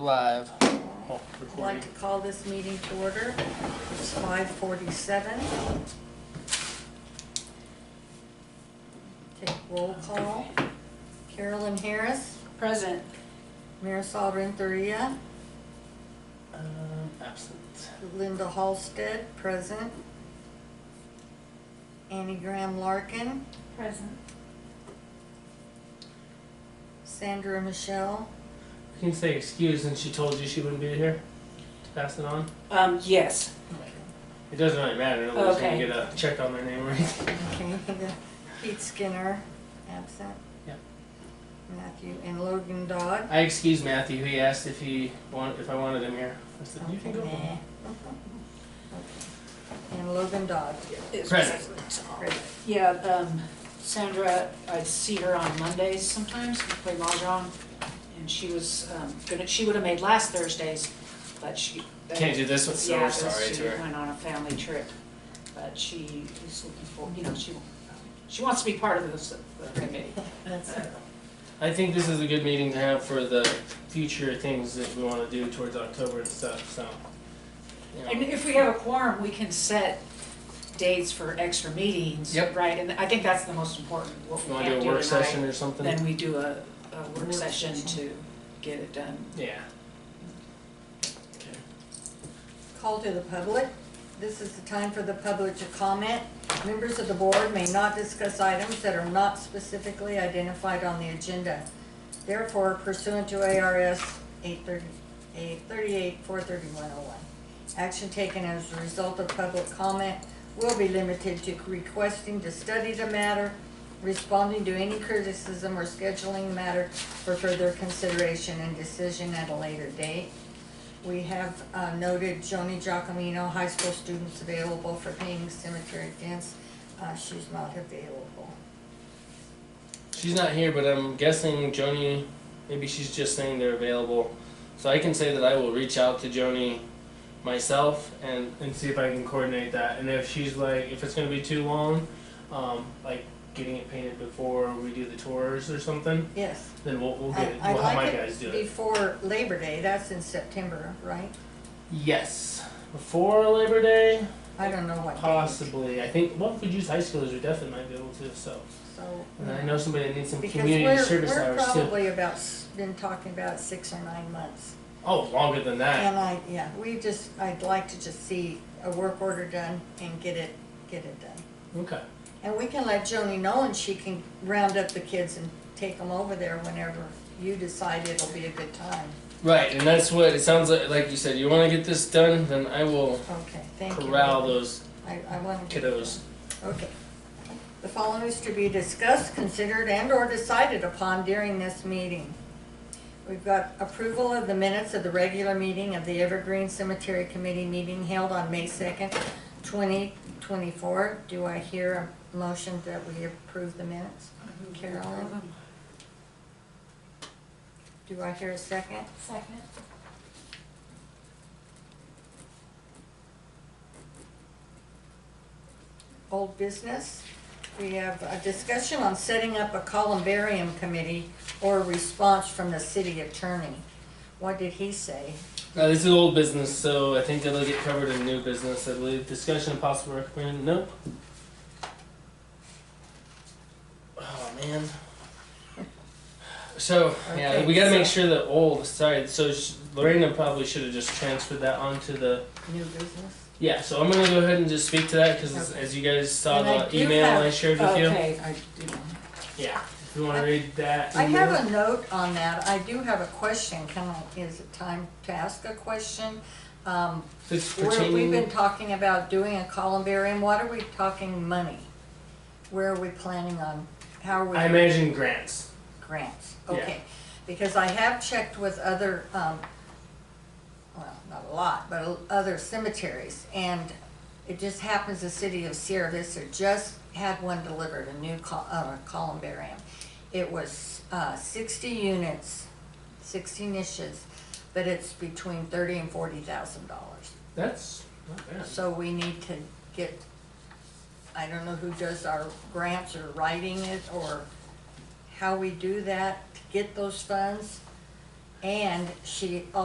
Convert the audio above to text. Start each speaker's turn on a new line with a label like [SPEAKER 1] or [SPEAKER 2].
[SPEAKER 1] live. Oh,
[SPEAKER 2] I'd like
[SPEAKER 1] recording.
[SPEAKER 2] to call this meeting to order. It's 5:47. Take roll call. Carolyn Harris,
[SPEAKER 3] Present.
[SPEAKER 2] Marisol Renteria,
[SPEAKER 1] Um, absent.
[SPEAKER 2] Linda Halstead, present. Annie Graham Larkin,
[SPEAKER 3] Present.
[SPEAKER 2] Sandra Michelle.
[SPEAKER 1] You can say excuse since she told you she wouldn't be here to pass it on.
[SPEAKER 3] Um, yes.
[SPEAKER 1] It doesn't really matter unless
[SPEAKER 3] Okay.
[SPEAKER 1] you get a check on their name or anything.
[SPEAKER 2] Okay, Pete Skinner, absent.
[SPEAKER 1] Yep.
[SPEAKER 2] Matthew and Logan Dodd.
[SPEAKER 1] I excused Matthew. He asked if he want, if I wanted him here. I said, you can go.
[SPEAKER 2] Okay. And Logan Dodd.
[SPEAKER 3] It's
[SPEAKER 1] Present.
[SPEAKER 2] Great.
[SPEAKER 3] Yeah, um, Sandra, I see her on Mondays sometimes, we play mahjong. And she was, um, gonna, she would have made last Thursdays, but she.
[SPEAKER 1] Can't do this one, so
[SPEAKER 3] Yeah,
[SPEAKER 1] we're
[SPEAKER 3] 'cause
[SPEAKER 1] sorry
[SPEAKER 3] she
[SPEAKER 1] to her.
[SPEAKER 3] went on a family trip, but she is looking for, you know, she, she wants to be part of this uh, committee.
[SPEAKER 2] That's it.
[SPEAKER 1] I think this is a good meeting to have for the future things that we want to do towards October and stuff. So, you know.
[SPEAKER 3] And if we have a quorum, we can set dates for extra meetings.
[SPEAKER 1] Yep.
[SPEAKER 3] Right, and I think that's the most important, what
[SPEAKER 1] if you
[SPEAKER 3] we
[SPEAKER 1] want to
[SPEAKER 3] can't
[SPEAKER 1] do a
[SPEAKER 3] do
[SPEAKER 1] work
[SPEAKER 3] tonight.
[SPEAKER 1] session or something.
[SPEAKER 3] Then we do a, a work
[SPEAKER 2] Work
[SPEAKER 3] session
[SPEAKER 2] session.
[SPEAKER 3] to get it done.
[SPEAKER 1] yeah. Okay.
[SPEAKER 2] Call to the public. This is the time for the public to comment. Members of the board may not discuss items that are not specifically identified on the agenda. Therefore pursuant to ARS 838, 43101, action taken as a result of public comment will be limited to requesting to study the matter, responding to any criticism or scheduling the matter for further consideration and decision at a later date. We have uh, noted Joni Giacomino, high school students available for paying cemetery dance. Uh, She's not available.
[SPEAKER 1] She's not here, but I'm guessing Joni, maybe she's just saying they're available. So I can say that I will reach out to Joni myself and, and see if I can coordinate that. And if she's like, if it's gonna be too long, um, like getting it painted before we do the tours or something,
[SPEAKER 2] Yes.
[SPEAKER 1] then we'll, we'll get it,
[SPEAKER 2] I- I'd
[SPEAKER 1] we'll have my
[SPEAKER 2] like
[SPEAKER 1] guys
[SPEAKER 2] it
[SPEAKER 1] do it.
[SPEAKER 2] before Labor Day, that's in September, right?
[SPEAKER 1] Yes, before Labor Day,
[SPEAKER 2] I don't know what date.
[SPEAKER 1] possibly. I think, well, if we use high schoolers, we definitely might be able to, so.
[SPEAKER 2] So.
[SPEAKER 1] And then I know somebody that needs some
[SPEAKER 2] Because
[SPEAKER 1] community
[SPEAKER 2] we're-
[SPEAKER 1] service
[SPEAKER 2] we're
[SPEAKER 1] hours too.
[SPEAKER 2] probably about, s- been talking about six or nine months.
[SPEAKER 1] Oh, longer than that.
[SPEAKER 2] And I, yeah, we just, I'd like to just see a work order done and get it, get it done.
[SPEAKER 1] Okay.
[SPEAKER 2] And we can let Joni know and she can round up the kids and take them over there whenever you decide it'll be a good time.
[SPEAKER 1] Right, and that's what it sounds like. Like you said, you want to get this done, then I will
[SPEAKER 2] Okay, thank you.
[SPEAKER 1] corral those
[SPEAKER 2] I, I want to.
[SPEAKER 1] kiddos.
[SPEAKER 2] Okay. The following is to be discussed, considered, and/or decided upon during this meeting. We've got approval of the minutes of the regular meeting of the Evergreen Cemetery Committee meeting held on May second, twenty twenty-four. Do I hear a motion that we approve the minutes? Carolyn? Do I hear a second?
[SPEAKER 3] Second.
[SPEAKER 2] Old business, we have a discussion on setting up a columbarium committee or response from the city attorney. What did he say?
[SPEAKER 1] Uh, this is old business, so I think that'll get covered in new business. I believe discussion possible recommend. Nope. Oh man. So yeah,
[SPEAKER 2] Okay,
[SPEAKER 1] we got to make
[SPEAKER 2] so-
[SPEAKER 1] sure that old. Sorry, so sh- Lorena probably should have just transferred that onto the.
[SPEAKER 2] New business?
[SPEAKER 1] Yeah, so I'm gonna go ahead and just speak to that because
[SPEAKER 2] Okay.
[SPEAKER 1] as you guys saw
[SPEAKER 2] And I
[SPEAKER 1] Uh, the
[SPEAKER 2] do
[SPEAKER 1] email
[SPEAKER 2] have-
[SPEAKER 1] I shared with you.
[SPEAKER 3] Okay, I do.
[SPEAKER 1] Yeah, if you want to read that.
[SPEAKER 2] I
[SPEAKER 1] email.
[SPEAKER 2] have a note on that. I do have a question. Can I, is it time to ask a question? Um,
[SPEAKER 1] It's
[SPEAKER 2] where we've been
[SPEAKER 1] pertaining,
[SPEAKER 2] talking about doing a columbarium, what are we talking money? Where are we planning on, how are we?
[SPEAKER 1] I imagine grants.
[SPEAKER 2] grants,
[SPEAKER 1] Yeah.
[SPEAKER 2] okay. Because I have checked with other, um, well, not a lot, but o- other cemeteries, and it just happens the city of Sierra Vista just had one delivered, a new col- uh, columbarium. It was, uh, sixty units, sixty niches, but it's between thirty and forty thousand dollars.
[SPEAKER 1] That's not bad.
[SPEAKER 2] So we need to get, I don't know who does our grants or writing it or how we do that to get those funds. And she